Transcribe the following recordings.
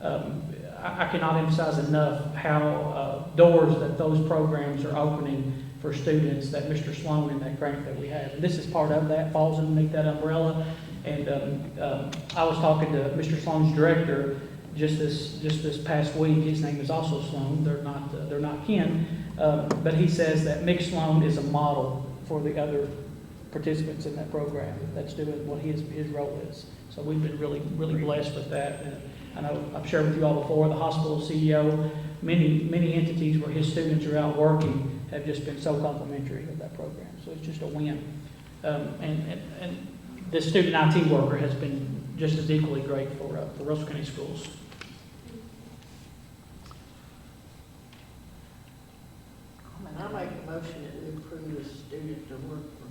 um, I I cannot emphasize enough how uh, doors that those programs are opening for students that Mr. Sloan and that grant that we have. And this is part of that, falls underneath that umbrella. And um, um, I was talking to Mr. Sloan's director just this, just this past week. His name is also Sloan. They're not, uh, they're not kin. Um, But he says that Mick Sloan is a model for the other participants in that program that's doing what his, his role is. So we've been really, really blessed with that. And I know, I've shared with you all before, the hospital CEO, many, many entities where his students are out working have just been so complimentary of that program. So it's just a win. Um, and, and, and the student IT worker has been just as equally great for, uh, for Russell County Schools. I make a motion that we approve a student to work for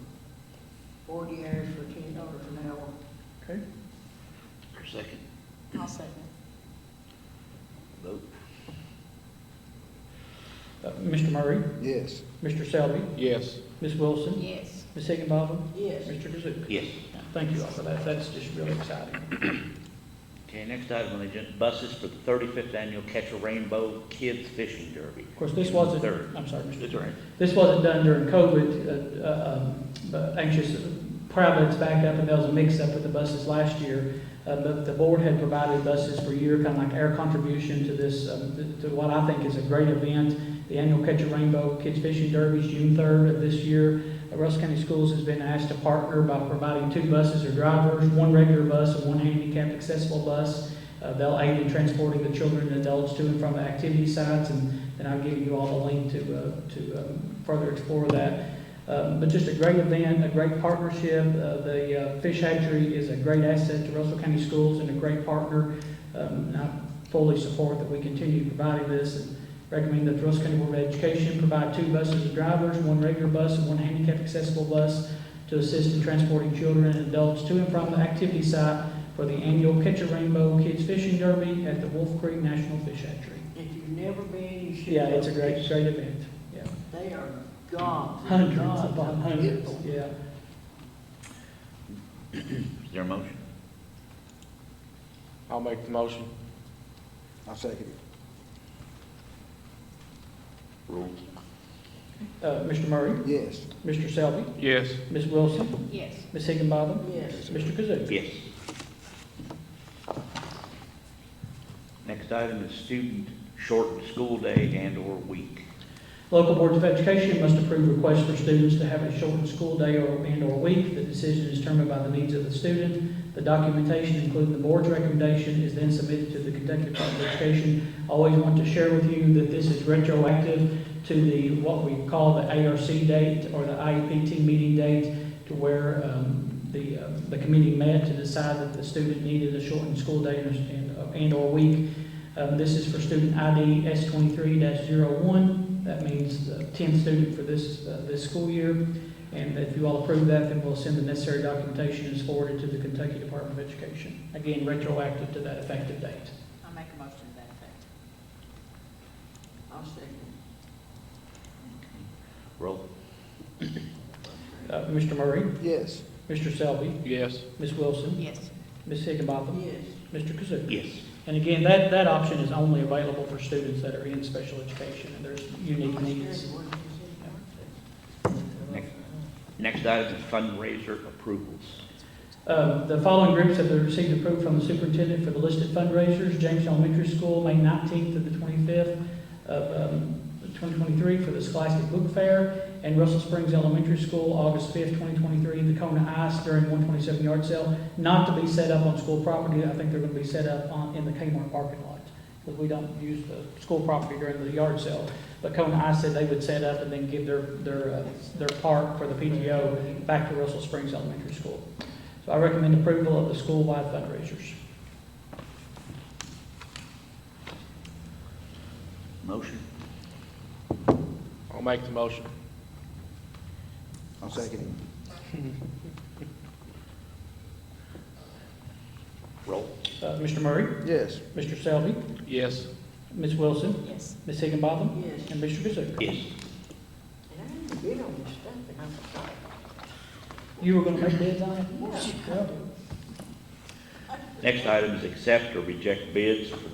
forty hours for ten dollars an hour. Okay. Your second I'll second. vote? Uh, Mr. Murray, Yes. Mr. Selby, Yes. Ms. Wilson, Yes. Ms. Higginbotham, Yes, Mr. Kazook. Yes. Thank you all for that. That's just really exciting. Okay, next item on the agenda, buses for the thirty-fifth annual Catch a Rainbow Kids Fishing Derby. Of course, this wasn't, Third. I'm sorry, Mr. That's all right. This wasn't done during COVID, uh, uh, um, but anxious, proud that it's back up, and there was a mix-up with the buses last year. Uh, But the board had provided buses for a year, kind of like our contribution to this, um, th- to what I think is a great event. The annual Catch a Rainbow Kids Fishing Derby is June 3rd of this year. Uh, Russell County Schools has been asked to partner by providing two buses or drivers, one regular bus and one handicapped accessible bus. Uh, They'll aid in transporting the children and adults to and from the activity sites and and I'll give you all the link to, uh, to um, further explore that. Um, But just a great event, a great partnership. Uh, The uh, Fish Hatchery is a great asset to Russell County Schools and a great partner. Um, And I fully support that we continue providing this and recommend that the Russell County Board of Education provide two buses and drivers, one regular bus and one handicap accessible bus to assist in transporting children and adults to and from the activity site for the annual Catch a Rainbow Kids Fishing Derby at the Wolf Creek National Fish Hatchery. if you've never been, you should. Yeah, it's a go. great, great event, yeah. They are gods. Hundreds gods upon hundreds, people. yeah. Is there a motion? I'll make the motion. I'll second it. Rule. Uh, Mr. Murray, Yes. Mr. Selby, Yes. Ms. Wilson, Yes. Ms. Higginbotham, Yes, Mr. Kazook. Yes. Next item is student shortened school day and/or week. Local boards of education must approve requests for students to have a shortened school day or, and/or week. The decision is determined by the needs of the student. The documentation, including the board's recommendation, is then submitted to the Kentucky Department of Education. I Always want to share with you that this is retroactive to the, what we call the ARC date or the IEPT meeting date to where, um, the, uh, the committee met to decide that the student needed a shortened school day and, and/or week. Um, this is for student ID S twenty-three one that means the tenth student for this, uh, this school year. And if you all approve that, then we'll send the necessary documentation as forwarded to the Kentucky Department of Education. Again, retroactive to that effective date. I'll make a motion to that effect. I'll second. Roll. Uh, Mr. Murray, Yes. Mr. Selby, Yes. Ms. Wilson, Yes. Ms. Higginbotham, Yes, Mr. Kazook. Yes. And again, that, that option is only available for students that are in special education and there's unique needs. Next. Next item is fundraiser approvals. Um, The following groups have received approval from the superintendent for the listed fundraisers. James Elementary School, May 19th to the 25th of um, 2023 for the Scholastic Book Fair, and Russell Springs Elementary School, August 5th, 2023, the Kona Ice during 127 yard sale, not to be set up on school property. I think they're going to be set up on, in the Kmart parking lot, because we don't use the school property during the yard sale. But Kona Ice said they would set up and then give their, their, uh, their park for the PTO back to Russell Springs Elementary School. So I recommend approval of the school-wide fundraisers. Motion? I'll make the motion. I'll second it. Roll. Uh, Mr. Murray, Yes. Mr. Selby, Yes. Ms. Wilson, Yes. Ms. Higginbotham, yes. and Mr. Kazook. Yes. And I didn't bid on this stuff, and I'm sorry. You were going to make bids on it? Yeah. Yeah. Next item is accept or reject bids for the